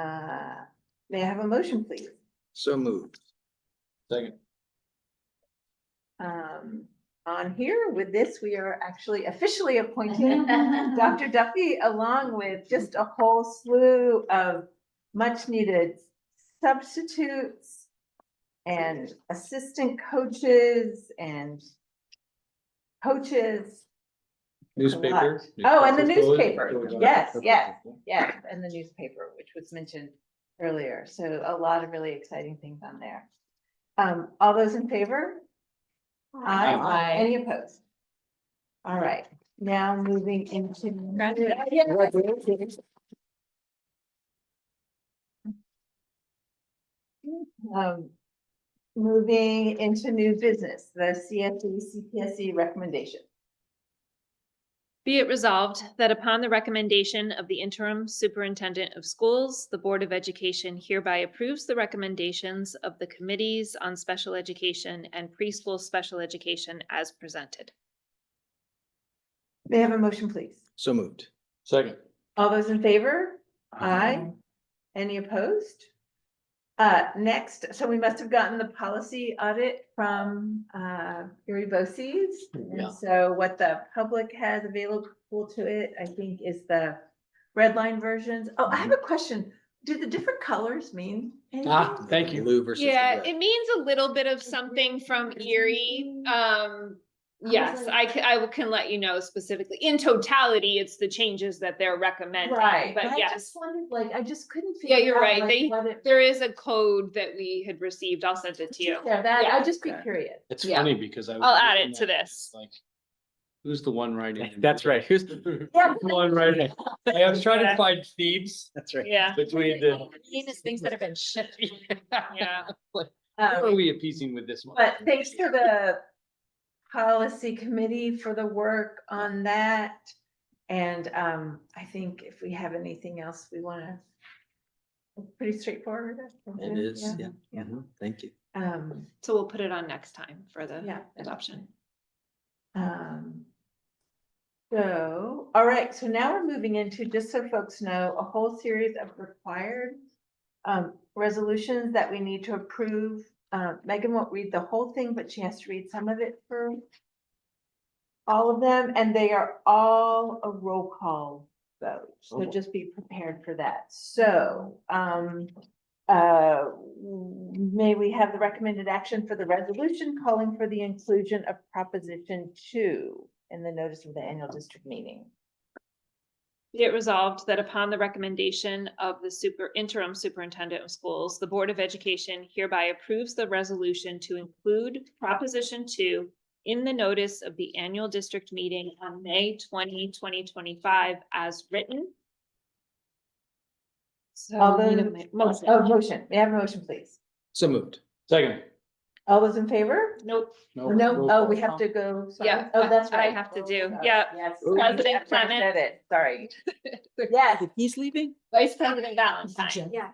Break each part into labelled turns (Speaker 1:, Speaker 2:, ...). Speaker 1: Uh, May I have a motion, please?
Speaker 2: So moved.
Speaker 3: Second.
Speaker 1: Um, on here with this, we are actually officially appointing Dr. Duffy along with just a whole slew of much needed substitutes and assistant coaches and coaches.
Speaker 3: Newspaper.
Speaker 1: Oh, and the
Speaker 3: Newspaper's always-
Speaker 1: newspaper.
Speaker 3: always on.
Speaker 1: Yes, yes. Yes, and the newspaper, which was mentioned earlier. So a lot of really exciting things on there. Um, all those in favor? Aye.
Speaker 4: Aye.
Speaker 1: Any opposed? All right, now moving into. Um, moving into new business, the CFD CPSC recommendation.
Speaker 4: Be it resolved that upon the recommendation of the interim superintendent of schools, the Board of Education hereby approves the recommendations of the committees on special education and preschool special education as presented.
Speaker 1: May I have a motion, please?
Speaker 2: So moved.
Speaker 3: Second.
Speaker 1: All those in favor? Aye. Any opposed? Uh, next, so we must have gotten the policy audit from, uh, Gary Bosse's.
Speaker 3: Yeah.
Speaker 1: And so what the public has available to it, I think, is the red line versions. Oh, I have a question. Do the different colors mean
Speaker 3: Ah.
Speaker 1: anything?
Speaker 3: Thank you.
Speaker 2: Blue versus. the
Speaker 4: Yeah,
Speaker 2: red.
Speaker 4: it means a little bit of something from Erie. Um, yes, I can, I will- can let you know specifically. In totality, it's the changes that they're recommending.
Speaker 1: Right, but
Speaker 4: But
Speaker 1: I just
Speaker 4: yes,
Speaker 1: wondered, like, I just couldn't.
Speaker 4: Yeah,
Speaker 1: figure
Speaker 4: you're
Speaker 1: out,
Speaker 4: right.
Speaker 1: like,
Speaker 4: They-
Speaker 1: what it-
Speaker 4: there is a code that we had received. I'll send it to you.
Speaker 1: Yeah, that, I'd just be
Speaker 2: Okay.
Speaker 1: curious.
Speaker 3: It's
Speaker 4: Yeah.
Speaker 3: funny because I. was
Speaker 4: I'll add
Speaker 3: looking
Speaker 4: it to
Speaker 3: at
Speaker 4: this.
Speaker 3: Like, who's the one writing?
Speaker 5: That's right. Who's the
Speaker 1: Yeah,
Speaker 5: one writing? I was trying to find thieves
Speaker 2: That's right.
Speaker 4: Yeah,
Speaker 5: between the.
Speaker 6: things that have been shipped.
Speaker 4: yeah.
Speaker 3: Who
Speaker 1: um,
Speaker 3: are we appeasing with this one?
Speaker 1: But thanks to the policy committee for the work on that. And um, I think if we have anything else, we wanna. Pretty straightforward. I think,
Speaker 2: It is, yeah.
Speaker 1: yeah.
Speaker 2: Mhm. Thank you.
Speaker 1: Um,
Speaker 4: So we'll put it on next time for the
Speaker 1: yeah.
Speaker 4: adoption.
Speaker 1: Um. So, all right, so now we're moving into, just so folks know, a whole series of required. Um, resolutions that we need to approve. Uh, Megan won't read the whole thing, but she has to read some of it for. All of them, and they are all a roll call vote, so just be prepared for that. So, um. Uh, may we have the recommended action for the resolution calling for the inclusion of proposition two in the notice of the annual district meeting?
Speaker 4: Be it resolved that upon the recommendation of the super interim superintendent of schools, the Board of Education hereby approves the resolution to include Proposition Two in the notice of the annual district meeting on May 20, 2025, as written. So
Speaker 1: All
Speaker 4: we need a
Speaker 1: those-
Speaker 4: mo-
Speaker 1: Oh,
Speaker 4: motion.
Speaker 1: motion, may I have a motion, please?
Speaker 2: So moved.
Speaker 3: Second.
Speaker 1: All those in favor?
Speaker 4: Nope,
Speaker 1: No, oh, we have to go. sorry.
Speaker 4: Yeah,
Speaker 1: Oh, that's
Speaker 4: I- I
Speaker 1: right.
Speaker 4: have to do,
Speaker 1: Oh,
Speaker 4: yeah.
Speaker 1: Yes.
Speaker 2: Ooh.
Speaker 4: President
Speaker 1: After I
Speaker 4: Clement.
Speaker 1: said it, Sorry. Yes,
Speaker 6: He's leaving?
Speaker 4: Vice President Valentine,
Speaker 6: Yeah.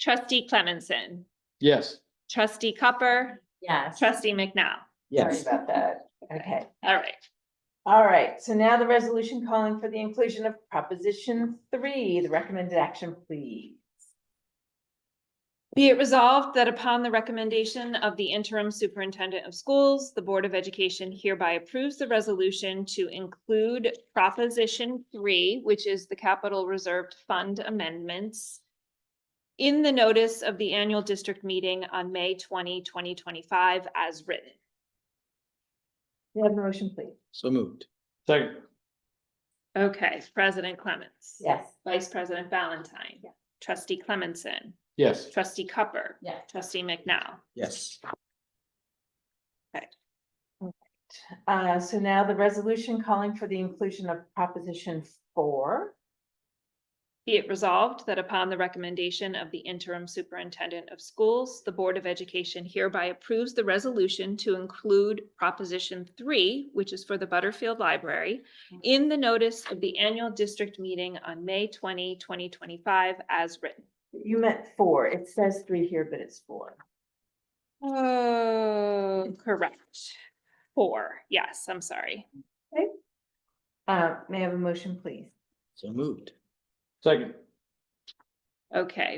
Speaker 4: trustee Clemenson,
Speaker 3: Yes.
Speaker 4: trustee Cupper,
Speaker 6: Yes.
Speaker 4: trustee McNow.
Speaker 1: sorry about that. Okay.
Speaker 4: All right.
Speaker 1: All right, so now the resolution calling for the inclusion of proposition three, the recommended action, please.
Speaker 4: Be it resolved that upon the recommendation of the interim superintendent of schools, the Board of Education hereby approves the resolution to include Proposition Three, which is the Capital Reserved Fund Amendments in the notice of the annual district meeting on May 20, 2025, as written.
Speaker 1: May I have a motion, please?
Speaker 2: So moved.
Speaker 3: Second.
Speaker 4: Okay, President Clements.
Speaker 1: Yes.
Speaker 4: Vice President Valentine.
Speaker 1: Yeah.
Speaker 4: Trustee Clemenson.
Speaker 3: Yes.
Speaker 4: Trustee Cupper.
Speaker 1: Yes.
Speaker 4: Trustee McNow.
Speaker 2: Yes.
Speaker 1: Uh, so now the resolution calling for the inclusion of proposition four.
Speaker 4: Be it resolved that upon the recommendation of the interim superintendent of schools, the Board of Education hereby approves the resolution to include Proposition Three, which is for the Butterfield Library, in the notice of the annual district meeting on May 20, 2025, as written.
Speaker 1: You meant four. It says three here, but it's four.
Speaker 4: Oh, correct. Four, yes, I'm sorry.
Speaker 1: Uh, may I have a motion, please?
Speaker 2: So moved.
Speaker 3: Second.
Speaker 4: Okay,